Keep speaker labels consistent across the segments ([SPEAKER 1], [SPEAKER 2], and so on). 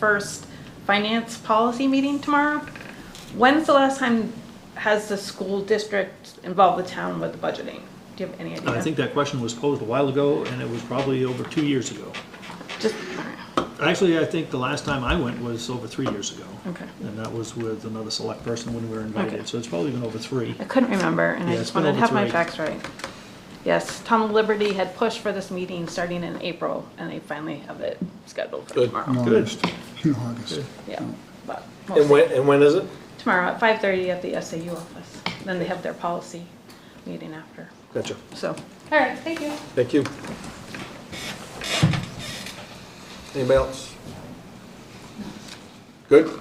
[SPEAKER 1] first finance policy meeting tomorrow. When's the last time has the school district involved the town with budgeting? Do you have any idea?
[SPEAKER 2] I think that question was posed a while ago, and it was probably over two years ago.
[SPEAKER 1] Just,
[SPEAKER 2] Actually, I think the last time I went was over three years ago.
[SPEAKER 1] okay.
[SPEAKER 2] And that was with another select person when we were
[SPEAKER 1] Okay.
[SPEAKER 2] invited, so it's probably been over three.
[SPEAKER 1] I couldn't remember, and I
[SPEAKER 2] Yeah,
[SPEAKER 1] just
[SPEAKER 2] it's been
[SPEAKER 1] wanted to have
[SPEAKER 2] over
[SPEAKER 1] my
[SPEAKER 2] three.
[SPEAKER 1] facts right. Yes, Tom Liberty had pushed for this meeting starting in April, and they finally have it scheduled for
[SPEAKER 3] Good.
[SPEAKER 1] tomorrow.
[SPEAKER 4] in
[SPEAKER 2] Good. Mm.
[SPEAKER 4] August. In August.
[SPEAKER 1] Yeah, but we'll
[SPEAKER 3] And
[SPEAKER 1] see.
[SPEAKER 3] when, and when is it?
[SPEAKER 1] tomorrow at 5:30 at the SAU office. Then they have their policy meeting after,
[SPEAKER 3] Gotcha.
[SPEAKER 1] so.
[SPEAKER 5] All right, thank you.
[SPEAKER 3] Thank you. Anybody else? Good?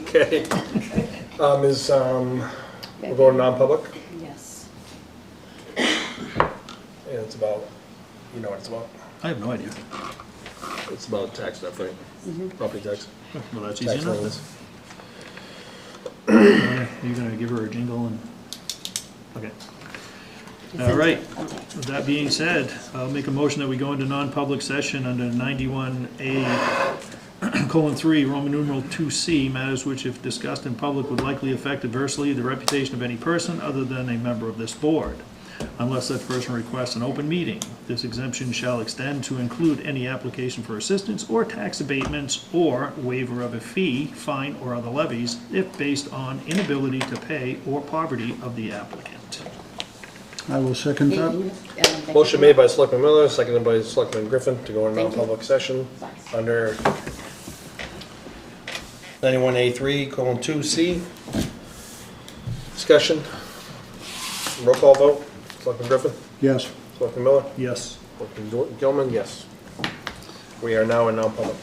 [SPEAKER 3] Okay. Um, is, um, we're going non-public?
[SPEAKER 5] Yes.
[SPEAKER 3] Yeah, it's about, you know what it's about?
[SPEAKER 2] I have no idea.
[SPEAKER 3] It's about tax stuff, right? Property tax.
[SPEAKER 2] Well, that's easy
[SPEAKER 3] Tax
[SPEAKER 2] enough.
[SPEAKER 3] levels.
[SPEAKER 2] then. Uh, You're gonna give her a jingle and, okay. All right, with that being said, I'll make a motion that we go into non-public session under ninety-one A colon three, Roman numeral two C, matters which if discussed in public would likely affect adversely the reputation of any person other than a member of this board, unless such person requests an open meeting. This exemption shall extend to include any application for assistance or tax abatements or waiver of a fee, fine, or other levies if based on inability to pay or poverty of the applicant.
[SPEAKER 4] I will second that.
[SPEAKER 3] Motion made by Selectman Miller, seconded by Selectman Griffin to go into
[SPEAKER 5] Thank you.
[SPEAKER 3] non-public session under 91A3, colon 2C. Discussion. Roll call vote. Selectman Griffin,
[SPEAKER 4] Yes.
[SPEAKER 3] Selectman Miller,
[SPEAKER 2] Yes.
[SPEAKER 3] Selectman Gilman, yes. We are now in non-public.